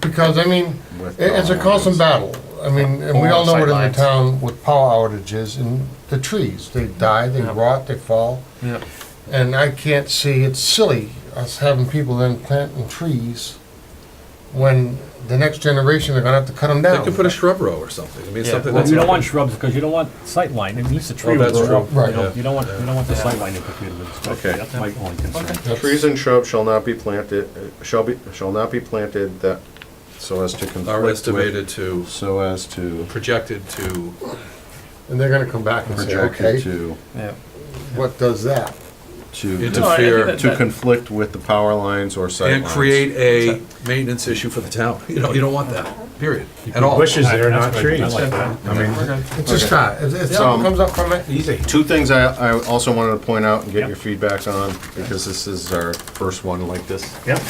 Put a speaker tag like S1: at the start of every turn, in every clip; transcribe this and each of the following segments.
S1: because, I mean,
S2: With
S1: it- it's a
S2: power
S1: constant battle. I mean, and we all know what in the
S2: Sidelines.
S1: town with power outages and the trees, they die, they rot, they fall.
S3: Yeah.
S1: And I can't see, it's silly us having people then planting trees when the next generation are gonna have to cut them
S3: They
S1: down.
S3: could put a shrub row or something, I mean, it's
S4: Yeah,
S3: something
S4: well,
S3: that's.
S4: you don't want shrubs because you don't want sightline, it needs a tree.
S3: Oh,
S4: with
S3: that's
S4: the-
S3: true.
S1: Right.
S4: You don't,
S3: Yeah.
S4: you don't want, you don't want the sightline implicated with this.
S2: Okay.
S4: That's my only concern.
S1: That's-
S2: Trees and shrubs shall not be planted, uh, shall be, shall not be planted that, so as to conflict
S3: Are
S2: with-
S3: estimated to,
S2: So as to
S3: projected to,
S1: And they're gonna come back and say,
S2: projected
S1: okay,
S2: to,
S5: Yeah.
S1: what does that?
S2: to,
S4: No, I- I think
S3: interfere,
S4: that-
S2: to conflict with the power lines or sight
S3: and
S2: lines.
S3: create a maintenance issue for the town, you know, you don't want that, period, at all.
S6: Bushes there,
S4: That's
S6: not
S4: great. I
S6: trees.
S4: like that.
S2: I mean,
S1: It's just that, if, if something
S2: Um,
S1: comes up from it,
S6: Easy.
S2: two things I, I also wanted to point out and get
S4: Yep.
S2: your feedbacks on, because this is our first one like this.
S4: Yep.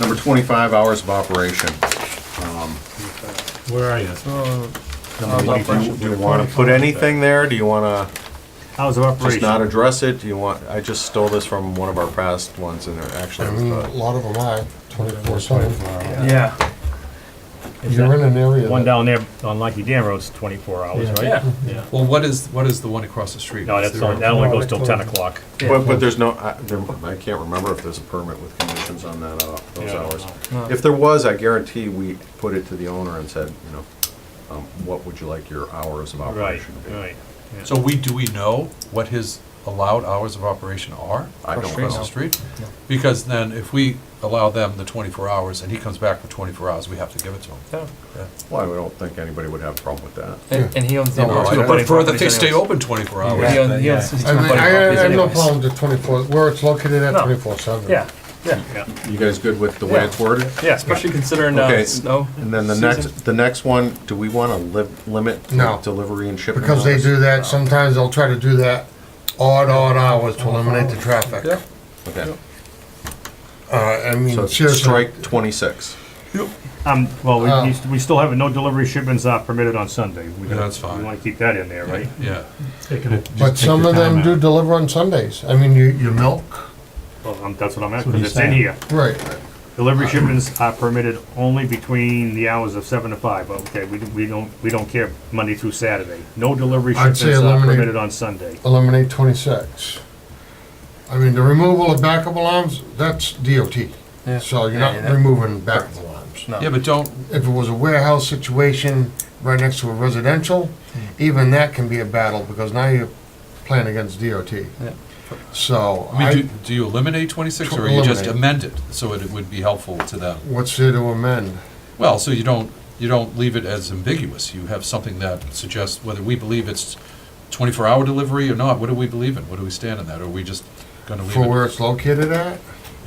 S2: Number twenty-five, hours of operation.
S6: Where are you?
S2: Do you- do you wanna put anything there? Do you wanna?
S4: Hours of
S2: just not
S4: operation,
S2: address it? Do you want, I just stole this from one of our past ones and it actually
S1: I
S2: was
S1: mean, a
S2: the.
S1: lot of them are twenty-four seven.
S5: Yeah.
S1: You're in an area.
S4: one
S1: that-
S4: down there on Lucky Dam Road's twenty-four hours, right?
S6: Yeah.
S4: Yeah.
S3: Well, what is, what is the one across the street?
S4: No,
S3: Is
S4: that's,
S3: there
S4: only- that only goes till ten o'clock.
S2: But, but there's no, I, there- I can't remember if there's a permit with conditions on that, uh, those
S4: Yeah, I don't
S2: hours. If there was, I guarantee we put it to the owner and said, you know, um, what would you like your hours of
S4: Right,
S2: operation to be?
S4: right. yeah.
S3: So we, do we know what his allowed hours of operation are?
S2: I don't
S3: Across
S2: know.
S3: the street? Because then if we allow them the twenty-four hours and he comes back for twenty-four hours, we have to give it to him.
S2: Well, I don't think anybody would have a problem with that.
S5: And and he owns.
S3: You know,
S5: two
S3: I- But
S5: budding
S3: for that they
S5: properties
S3: stay
S5: anyways.
S3: open twenty-four
S5: He
S3: hours.
S5: owns, he owns. two
S1: I mean,
S5: budding
S1: I, I
S5: properties
S1: have no
S5: anyways.
S1: problem with twenty-four, where it's located at
S5: No.
S1: twenty-four seven.
S5: Yeah, yeah,
S4: Yeah.
S2: You guys good with the way
S5: Yeah.
S2: it's worded?
S5: yeah, especially considering, uh,
S2: Okay.
S5: snow.
S2: And then the
S5: season.
S2: next, the next one, do we wanna li- limit
S1: No.
S2: delivery and shipping?
S1: Because they
S2: hours?
S1: do that, sometimes they'll try to do that odd, odd hours to eliminate the traffic.
S3: Yeah.
S2: Okay,
S1: Uh, I mean,
S2: so
S1: seriously,
S2: strike twenty-six.
S4: Um, well,
S1: Uh,
S4: we, we st- we still have it, no delivery shipments are permitted on Sunday. We
S3: Yeah,
S4: gotta-
S3: that's fine.
S4: We wanna keep that in there, right?
S3: Yeah.
S1: but some of them do deliver on Sundays. I mean, you, you milk,
S4: Well, um, that's what I'm at,
S6: what
S4: cause
S6: he's
S4: it's in
S6: saying.
S4: here.
S1: right,
S4: Delivery shipments are permitted only between the hours of seven to five, okay, we, we don't, we don't care Monday through Saturday. No delivery
S1: I'd say
S4: shipments are
S1: eliminate-
S4: permitted on Sunday.
S1: eliminate twenty-six. I mean, the removal of backup alarms, that's DOT. So you're
S5: Yeah,
S1: not
S5: yeah.
S1: removing backup alarms.
S5: No.
S3: Yeah, but don't,
S1: If it was a warehouse situation right next to a residential, even that can be a battle, because now you're playing against DOT. So,
S3: I mean, do,
S1: I,
S3: do you eliminate twenty-six or you just
S1: Eliminate.
S3: amend it so it would be helpful to them?
S1: what's there to amend?
S3: Well, so you don't, you don't leave it as ambiguous. You have something that suggests whether we believe it's twenty-four hour delivery or not, what do we believe in? What do we stand on that? Are we just gonna leave
S1: For where
S3: it?
S1: it's located at?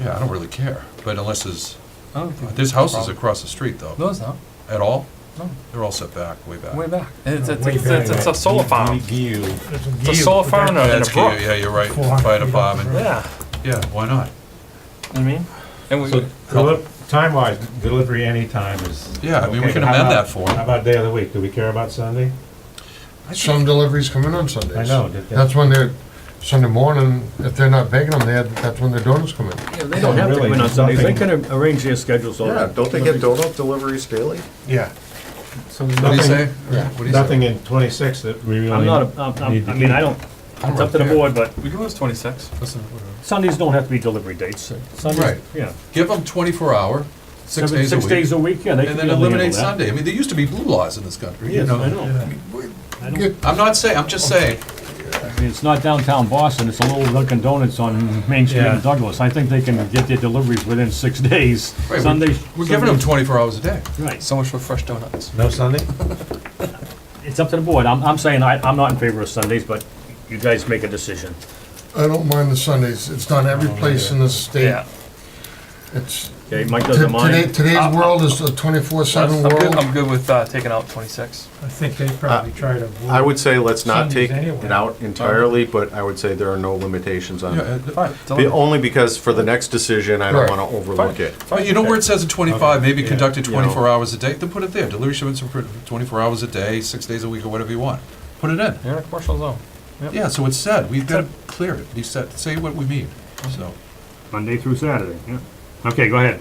S3: Yeah, I don't really care, but unless there's,
S5: I don't think
S3: there's
S5: it's a
S3: houses
S5: problem.
S3: across the street though.
S5: No, it's not,
S3: At all?
S5: No.
S3: They're all set back, way back.
S5: way back. It's, it's,
S6: Way
S5: it's, it's it's a solar farm. It's a solar farm in a-
S3: Yeah,
S5: in a
S3: that's cute.
S5: brook.
S3: Yeah, you're right,
S6: Four hundred
S3: fire
S6: feet
S3: department,
S5: Yeah,
S3: yeah, why not?
S5: I mean, and we,
S6: Time wise, delivery anytime is.
S3: Yeah, I mean, we
S6: okay,
S3: can
S6: but how
S3: amend
S6: about-
S3: that for 'em.
S6: How about day of the week? Do we care about Sunday?
S1: Some deliveries come in on Sundays.
S6: I know, that-
S1: That's when they're, Sunday morning, if they're not baking them, they have, that's when their donuts come in.
S5: yeah, they don't have to
S6: Really,
S5: come in on
S6: nothing.
S5: Sundays.
S4: They can arrange their schedules all
S2: Yeah,
S4: right.
S2: don't they get donut deliveries daily?
S1: Yeah.
S5: So
S3: What do you
S6: Nothing-
S3: say?
S1: Yeah.
S3: What do you say?
S6: Nothing in twenty-six that we really.
S4: I'm not, a- I'm- I'm- I mean, I don't, it's up to the board, but
S5: we can lose twenty-six.
S3: Listen, whatever.
S4: Sundays don't have to be delivery dates.
S1: Right.
S4: Sundays, yeah.
S3: Give them twenty-four hour, six
S4: Seven-
S3: days a
S4: Six
S3: week,
S4: days a week, yeah, they can
S3: and then
S4: handle
S3: eliminate
S4: that.
S3: Sunday. I mean, there used to be blue laws in this country, you
S4: Yes, I
S3: know?
S4: know. I don't-
S1: Get-
S3: I'm not saying, I'm just saying,
S4: I mean, It's not downtown Boston, it's a little Dunkin' Donuts on Main Street
S6: Yeah.
S4: in Douglas. I think they can get their deliveries within six days.
S3: Right, we-
S4: Sundays.
S3: we're giving them twenty-four hours a day.
S4: Right,
S5: So much for fresh donuts.
S6: No Sunday?
S4: it's up to the board. I'm, I'm saying I, I'm not in favor of Sundays, but you guys make a decision.
S1: I don't mind the Sundays, it's not every place in the state.
S4: Yeah.
S1: It's,
S4: Okay, Mike
S1: to-
S4: doesn't
S1: today,
S4: mind.
S1: today's
S5: Uh,
S1: world is a twenty-four seven
S5: I'm good, I'm
S1: world.
S5: good with, uh, taking out twenty-six.
S6: I think they probably try to.
S2: I would say let's not
S6: Sundays
S2: take
S6: anyway.
S2: it out entirely, but I would say there are no limitations on
S3: Yeah,
S2: it.
S3: uh,
S5: Fine.
S2: Be- Only because for the next decision, I don't
S1: Right.
S2: wanna overlook it.
S3: But you know where it says in twenty-five, maybe
S6: Yeah.
S3: conducted
S2: You know.
S3: twenty-four hours a day, then put it there. Delivery shipments are put- twenty-four hours a day, six days a week, or whatever you want. Put it in.
S5: You're in a commercial zone.
S3: Yeah, so it's said, we've got to clear it, be said, say what we mean, so.
S4: Monday through Saturday, yeah. Okay, go ahead.